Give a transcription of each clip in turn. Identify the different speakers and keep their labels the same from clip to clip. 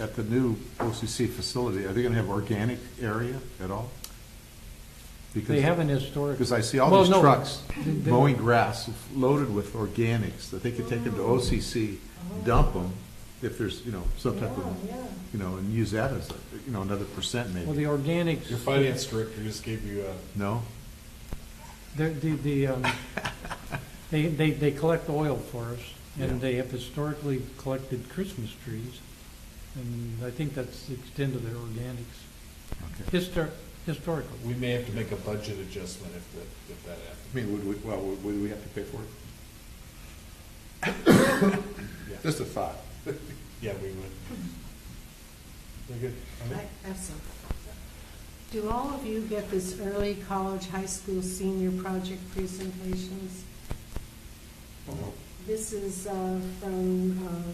Speaker 1: at the new OCC facility, are they gonna have organic area at all? Because-
Speaker 2: They haven't historically.
Speaker 1: Because I see all
Speaker 2: Well,
Speaker 1: these
Speaker 2: no,
Speaker 1: trucks
Speaker 2: they- they-
Speaker 1: mowing grass loaded with organics, that they could take them to OCC, dump them, if there's, you know, some type of,
Speaker 3: Yeah, Oh, yeah.
Speaker 1: you know, and use that as, you know, another percent
Speaker 2: Well, the
Speaker 1: maybe.
Speaker 2: organics.
Speaker 4: Your finance director just gave you a.
Speaker 1: No?
Speaker 2: The, the- the, um, they, they, they collect oil for us,
Speaker 1: Yeah.
Speaker 2: and they have historically collected Christmas trees. And I think that's the extent of their organics,
Speaker 1: Okay.
Speaker 2: histor, historically.
Speaker 4: We may have to make a budget adjustment if that, if that happens.
Speaker 1: I mean, would we, well, would would we have to pay for it?
Speaker 4: Yeah.
Speaker 1: Just a thought.
Speaker 4: Yeah, we would. Mm-hmm. Very good. All right.
Speaker 3: I have some. Do all of you get this early college, high school, senior project presentations? This is uh, from, um,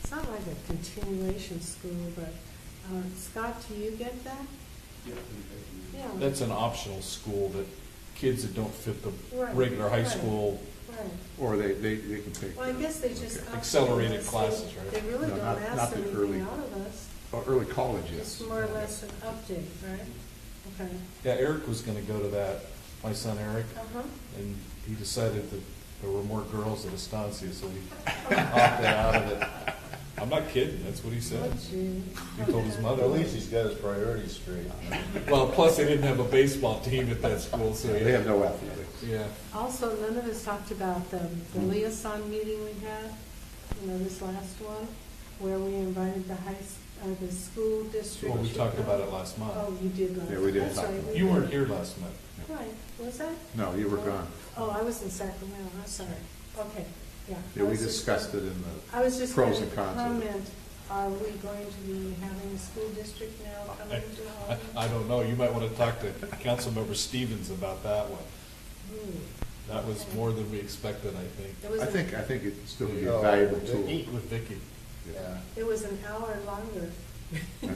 Speaker 3: it's not like a continuation school, but uh, Scott, do you get that? Yeah.
Speaker 4: That's an optional school that kids that don't fit the
Speaker 3: Right,
Speaker 4: regular high
Speaker 3: right.
Speaker 4: school,
Speaker 3: Right.
Speaker 1: Or they, they, they can pay. for
Speaker 3: Well, I
Speaker 1: it.
Speaker 3: guess they just.
Speaker 1: Okay.
Speaker 4: Accelerated classes, right?
Speaker 3: They really
Speaker 1: No,
Speaker 3: don't
Speaker 1: not- not
Speaker 3: ask
Speaker 1: the early.
Speaker 3: anything out of us.
Speaker 1: Or Early college, yes.
Speaker 3: It's more or less an update, right? Okay.
Speaker 4: yeah, Eric was gonna go to that, my son Eric,
Speaker 3: Uh-huh.
Speaker 4: and he decided that there were more girls at Estancia, so he opted out of it. I'm not kidding, that's what he said.
Speaker 3: Would you?
Speaker 4: He told his mother.
Speaker 5: At least he's got his priorities straight.
Speaker 4: Well, plus they didn't have a baseball team at that school, so
Speaker 1: They have
Speaker 4: yeah.
Speaker 1: no athletics.
Speaker 4: Yeah,
Speaker 3: Also, none of us talked about the, the
Speaker 1: Mm.
Speaker 3: liaison meeting we had, you know, this last one, where we invited the high, s- uh, the school district.
Speaker 4: well, we talked about it last
Speaker 3: Oh,
Speaker 4: month.
Speaker 3: you did last.
Speaker 1: Yeah, we did
Speaker 3: That's
Speaker 1: talk
Speaker 3: right,
Speaker 1: about
Speaker 3: we
Speaker 4: You
Speaker 3: did.
Speaker 4: weren't here last month.
Speaker 3: Right, was I?
Speaker 1: No, you were gone.
Speaker 3: Oh, I was in Sacramento, I'm sorry. Okay, yeah.
Speaker 1: Yeah,
Speaker 3: I
Speaker 1: we
Speaker 3: was just-
Speaker 1: discussed it in the,
Speaker 3: I was just going
Speaker 1: pros
Speaker 3: to
Speaker 1: and cons of it.
Speaker 3: comment, are we going to be having a school district now coming to
Speaker 4: I,
Speaker 3: Holland?
Speaker 4: I don't know, you might wanna talk to Councilmember Stevens about that one.
Speaker 3: Hmm,
Speaker 4: That was more than we expected, I think.
Speaker 3: It was,
Speaker 1: I
Speaker 3: an-
Speaker 1: think, I think it'd still be
Speaker 4: Oh,
Speaker 5: No,
Speaker 1: a valuable
Speaker 5: they
Speaker 1: tool.
Speaker 5: eat.
Speaker 4: Eat with Vicky.
Speaker 1: Yeah,
Speaker 5: Yeah.
Speaker 3: it was an hour longer. Oh,
Speaker 1: I know.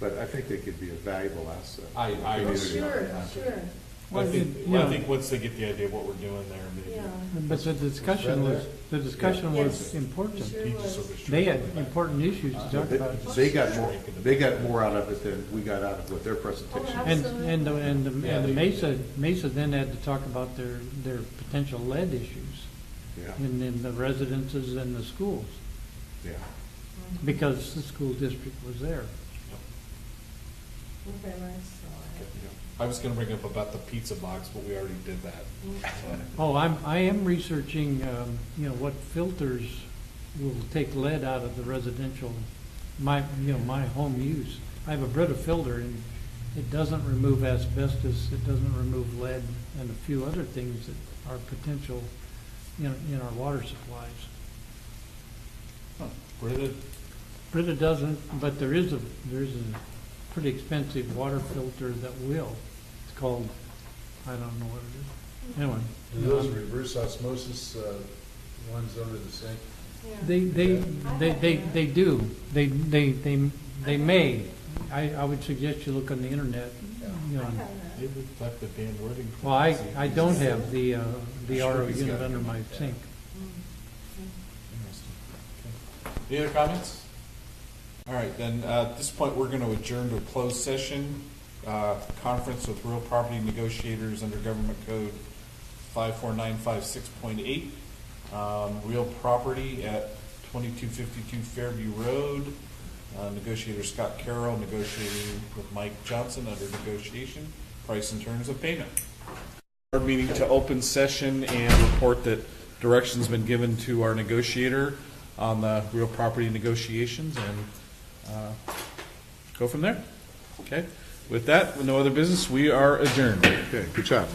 Speaker 1: But I think they could be a valuable asset.
Speaker 4: I- I
Speaker 1: Community.
Speaker 4: agree.
Speaker 3: Sure, sure,
Speaker 4: I
Speaker 2: Well,
Speaker 4: think,
Speaker 2: it-
Speaker 4: I
Speaker 2: yeah.
Speaker 4: think once they get the idea of what we're doing there, maybe.
Speaker 3: yeah.
Speaker 2: But the discussion was, the discussion was
Speaker 3: Yes.
Speaker 2: important.
Speaker 3: Sure
Speaker 4: He just
Speaker 3: was.
Speaker 4: sort of
Speaker 2: They had
Speaker 4: shrugged it back.
Speaker 2: important issues to talk
Speaker 1: They-
Speaker 2: about.
Speaker 1: They got more, they got more out of it than we got out of with their
Speaker 3: Oh,
Speaker 1: presentation.
Speaker 2: And, and, the- and the-
Speaker 4: Yeah,
Speaker 2: and the
Speaker 4: they-
Speaker 2: Mesa, Mesa then had to talk about their, their potential lead issues
Speaker 1: Yeah,
Speaker 2: in, in the residences and the schools,
Speaker 1: yeah.
Speaker 2: because the school district was there.
Speaker 3: Okay, Rex.
Speaker 4: I was gonna bring up about the pizza box, but we already did that.
Speaker 2: Oh, I'm, I am researching, um, you know, what filters will take lead out of the residential, my, you know, my home use. I have a Brita filter and it doesn't remove asbestos, it doesn't remove lead and a few other things that are potential in, in our water supplies.
Speaker 4: Where did,
Speaker 2: Brita doesn't, but there is a, there is a pretty expensive water filter that will. It's called, I don't know what it is. Anyway.
Speaker 5: Do those reverse osmosis uh, ones under the sink?
Speaker 2: They, they, they, they, they do, they, they, they, they may. I, I would suggest you look on the internet, you know.
Speaker 4: maybe we talked to Dan Ruding.
Speaker 2: Well, I, I don't have the, uh, the RO unit under my sink.
Speaker 3: Mm.
Speaker 4: Interesting. Okay. Any other comments? All right, then, uh, at this point, we're going to adjourn to a closed session, uh, conference with real property negotiators under Government Code 54956.8, um, real property at 2252 Fairview Road. Uh, Negotiator Scott Carroll negotiating with Mike Johnson under negotiation, price and terms of payment. Our meeting to open session and report that direction's been given to our negotiator on the real property negotiations and uh, go from there. Okay? With that, with no other business, we are adjourned.
Speaker 1: Okay, good job.